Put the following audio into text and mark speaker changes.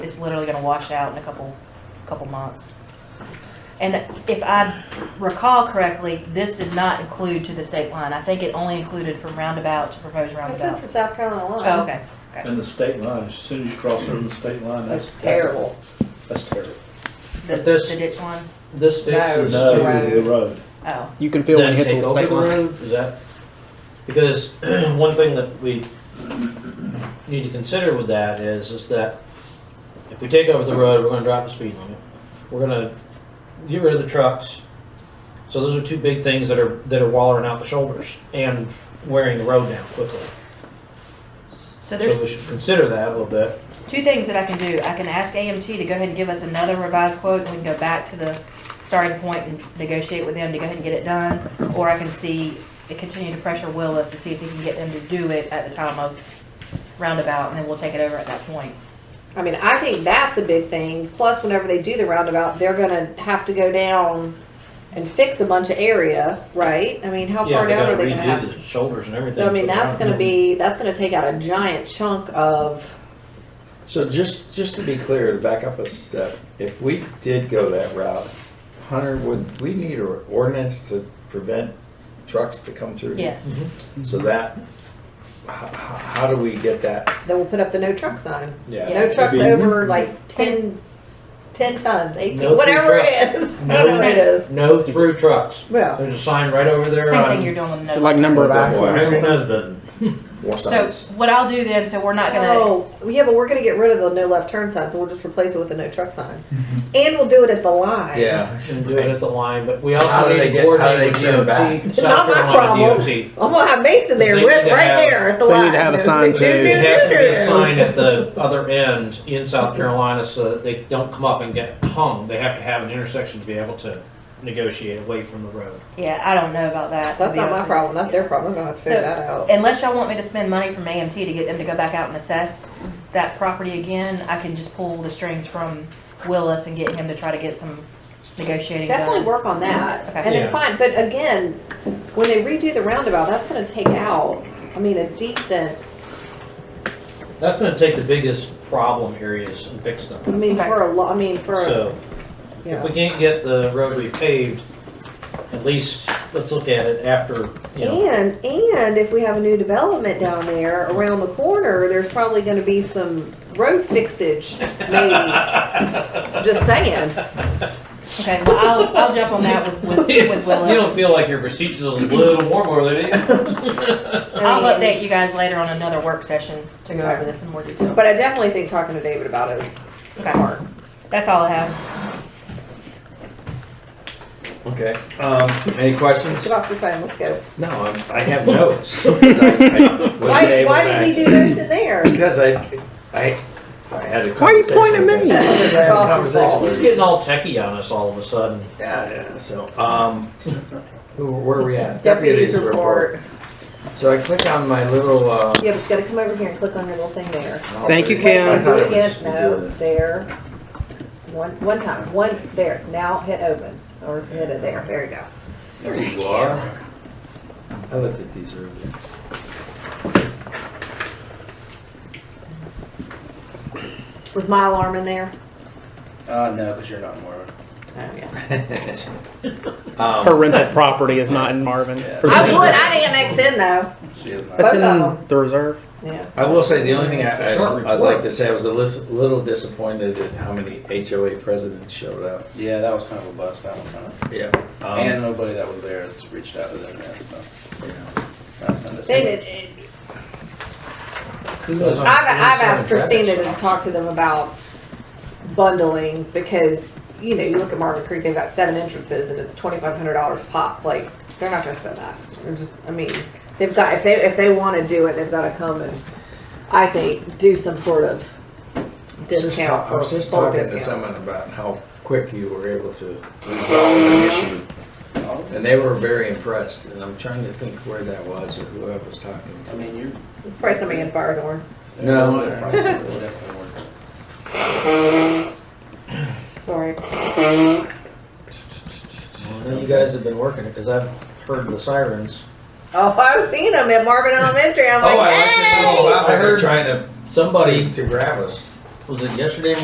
Speaker 1: it's literally gonna wash out in a couple, couple months. And if I recall correctly, this did not include to the state line. I think it only included from roundabout to proposed
Speaker 2: This
Speaker 1: roundabout.
Speaker 2: is South Carolina line.
Speaker 1: Oh, okay.
Speaker 3: And the state line, as soon as you cross over the state line, that's.
Speaker 4: That's terrible.
Speaker 3: That's terrible.
Speaker 1: The,
Speaker 5: But this-
Speaker 1: the ditch line?
Speaker 5: This fixes
Speaker 4: It's
Speaker 3: No,
Speaker 4: the
Speaker 3: the
Speaker 4: road.
Speaker 3: road.
Speaker 1: Oh,
Speaker 6: You can feel when
Speaker 5: then
Speaker 6: you hit
Speaker 5: take
Speaker 6: the
Speaker 5: over
Speaker 6: state
Speaker 5: the
Speaker 6: line.
Speaker 5: road, is that? Because one thing that we need to consider with that is, is that if we take over the road, we're gonna drop the speed limit. We're gonna get rid of the trucks. So those are two big things that are, that are wallering out the shoulders and wearing the road down quickly.
Speaker 1: so there's
Speaker 5: So we should consider that a little bit.
Speaker 1: two things that I can do. I can ask AMT to go ahead and give us another revised quote, and we can go back to the starting point and negotiate with them to go ahead and get it done. Or I can see, continue to pressure Willis to see if he can get them to do it at the time of roundabout, and then we'll take it over at that point.
Speaker 4: I mean, I think that's a big thing. Plus, whenever they do the roundabout, they're gonna have to go down and fix a bunch of area, right? I mean, how
Speaker 5: Yeah,
Speaker 4: far down are they gonna
Speaker 5: gotta
Speaker 4: have?
Speaker 5: redo the Shoulders and everything.
Speaker 4: So I mean,
Speaker 5: for the
Speaker 4: that's
Speaker 5: road.
Speaker 4: gonna be, that's gonna take out a giant chunk of,
Speaker 7: So just, just to be clear, to back up a step, if we did go that route, Hunter, would we need an ordinance to prevent trucks to come through?
Speaker 1: Yes.
Speaker 7: So
Speaker 6: Mm-hmm.
Speaker 7: that, how, how do we get that?
Speaker 4: that will put up the no truck sign.
Speaker 1: Yeah.
Speaker 4: No trucks
Speaker 7: It'd be-
Speaker 4: over like
Speaker 1: Just
Speaker 4: 10 10 tons,
Speaker 5: No
Speaker 4: eighteen,
Speaker 5: food
Speaker 4: whatever it
Speaker 5: truck.
Speaker 4: is.
Speaker 5: No.
Speaker 4: Whatever it is.
Speaker 5: No through trucks.
Speaker 4: Well,
Speaker 5: There's a sign right over there
Speaker 1: Same
Speaker 5: on.
Speaker 1: thing you're doing with
Speaker 6: Like
Speaker 1: no.
Speaker 6: number of
Speaker 7: Wow.
Speaker 6: axles.
Speaker 5: Everyone knows, but
Speaker 7: More
Speaker 1: So
Speaker 7: signs?
Speaker 1: what I'll do then, so we're not gonna,
Speaker 4: oh, yeah, but we're gonna get rid of the no left turn sign, so we'll just replace it with a no truck sign.
Speaker 5: Mm-hmm.
Speaker 4: And we'll do it at the line.
Speaker 7: Yeah.
Speaker 5: and do it at the line, but we
Speaker 7: How
Speaker 5: also
Speaker 7: do
Speaker 5: need
Speaker 7: they
Speaker 5: to
Speaker 7: get- how do they
Speaker 5: coordinate with
Speaker 7: turn back?
Speaker 5: DOT,
Speaker 4: It's not
Speaker 5: South
Speaker 4: my
Speaker 5: Carolina
Speaker 4: problem.
Speaker 5: DOT.
Speaker 4: I'm gonna have Mason there,
Speaker 5: They
Speaker 4: with,
Speaker 5: need to
Speaker 4: right
Speaker 5: have-
Speaker 4: there at the
Speaker 6: they
Speaker 4: line.
Speaker 6: need to have a sign too.
Speaker 4: Do, do,
Speaker 5: It has to be
Speaker 4: do,
Speaker 5: a
Speaker 4: do.
Speaker 5: sign at the other end in South Carolina so that they don't come up and get hung. They have to have an intersection to be able to negotiate away from the road.
Speaker 1: yeah, I don't know about that. to
Speaker 4: That's
Speaker 1: be
Speaker 4: not
Speaker 1: honest
Speaker 4: my
Speaker 1: with you.
Speaker 4: problem. That's their problem. I'm gonna have to figure
Speaker 1: So-
Speaker 4: that out.
Speaker 1: Unless y'all want me to spend money from AMT to get them to go back out and assess that property again, I can just pull the strings from Willis and get him to try to get some negotiating done.
Speaker 4: Definitely work on that.
Speaker 1: Okay.
Speaker 4: And then
Speaker 5: Yeah.
Speaker 4: fine, but again, when they redo the roundabout, that's gonna take out, I mean, a decent,
Speaker 5: That's gonna take the biggest problem areas and fix
Speaker 4: I
Speaker 5: them.
Speaker 4: mean,
Speaker 1: Okay.
Speaker 4: for a lot, I mean, for, a-
Speaker 5: So
Speaker 4: you
Speaker 5: if we
Speaker 4: know.
Speaker 5: can't get the road repaved, at least let's look at it after, you know.
Speaker 4: And, and if we have a new development down there around the corner, there's probably gonna be some road fixage, maybe. Just saying.
Speaker 1: Okay, well, I'll, I'll jump on that with, with,
Speaker 5: You
Speaker 1: with Willis.
Speaker 5: don't feel like your procedures is a little warm over there, do you?
Speaker 1: I'll update you guys later on another work session to go over this in more detail.
Speaker 4: But I definitely think talking to David about it is
Speaker 1: Okay.
Speaker 4: smart.
Speaker 1: That's all I have.
Speaker 7: Okay, um, any questions?
Speaker 4: Get off your phone, let's go.
Speaker 7: No, I'm- I have notes. 'cause I- I wasn't
Speaker 4: Why,
Speaker 7: able
Speaker 4: why
Speaker 7: to
Speaker 4: did we
Speaker 7: access-
Speaker 4: do those in there?
Speaker 7: Because I, I, I had a conversation.
Speaker 6: Why are you pointing
Speaker 7: with
Speaker 6: at me?
Speaker 7: them. Because I had a
Speaker 4: It's
Speaker 7: conversation
Speaker 4: awesome.
Speaker 5: He's
Speaker 7: with you.
Speaker 5: getting all techie on us all of a sudden.
Speaker 7: Yeah, yeah, so, um, who- where are we at?
Speaker 4: Deputies report.
Speaker 7: So I click on my little, uh.
Speaker 4: Yeah, but you gotta come over here and click on your little thing there.
Speaker 6: Thank you,
Speaker 4: Wait,
Speaker 6: Kim.
Speaker 4: wait,
Speaker 7: I
Speaker 4: Do it
Speaker 7: thought it would
Speaker 4: again,
Speaker 7: just be
Speaker 4: no,
Speaker 7: good.
Speaker 4: there. One, one time, one, there, now hit open, or hit it there, there you go.
Speaker 7: There you are. I looked at these earlier.
Speaker 4: Was my alarm in there?
Speaker 8: Uh, no, because you're not Mormon.
Speaker 4: Oh, yeah.
Speaker 6: Her
Speaker 7: Um,
Speaker 6: rental property is not in Marvin. for the-
Speaker 4: I would, I'd annex in though,
Speaker 8: She is not.
Speaker 6: That's
Speaker 4: both of
Speaker 6: in the reserve.
Speaker 4: yeah.
Speaker 7: I will say, the only thing I,
Speaker 5: Short
Speaker 7: I- I'd
Speaker 5: report.
Speaker 7: like to say, I was a lis- little disappointed at how many HOA presidents showed up.
Speaker 8: Yeah, that was kind of a bust. That one kind of.
Speaker 7: Yeah. um,
Speaker 8: and nobody that was there has reached out to them yet, so
Speaker 7: yeah.
Speaker 8: that's kind of.
Speaker 4: They did,
Speaker 5: Kudos on-
Speaker 4: I've, I've asked
Speaker 5: Traffic
Speaker 4: Christina to
Speaker 5: stop.
Speaker 4: talk to them about bundling because, you know, you look at Marvin Creek, they've got seven entrances and it's twenty-five hundred dollars pop. Like, they're not gonna spend that. They're just, I mean, they've got, if they, if they wanna do it, they've gotta come and, I think, do some sort of
Speaker 7: Just
Speaker 4: discount.
Speaker 7: talk- I was
Speaker 4: or
Speaker 7: just
Speaker 4: bulk
Speaker 7: talking to
Speaker 4: discount.
Speaker 7: someone about how quick you were able to resolve the issue.
Speaker 8: Oh,
Speaker 7: And they were very impressed, and I'm trying to think where that was or who I was talking
Speaker 8: I mean, you're.
Speaker 4: It's probably somebody in Firethorn.
Speaker 7: No.
Speaker 8: They're definitely working.
Speaker 4: Sorry.
Speaker 7: to.
Speaker 5: Well, You guys have been working it, because I've heard the sirens.
Speaker 4: Oh, I've seen them at Marvin Elementary. I'm like,
Speaker 7: Oh, I
Speaker 4: hey!
Speaker 7: like that. Oh, wow,
Speaker 5: I
Speaker 7: they're
Speaker 5: heard-
Speaker 7: trying to,
Speaker 5: Somebody,
Speaker 7: to grab us.
Speaker 5: was it yesterday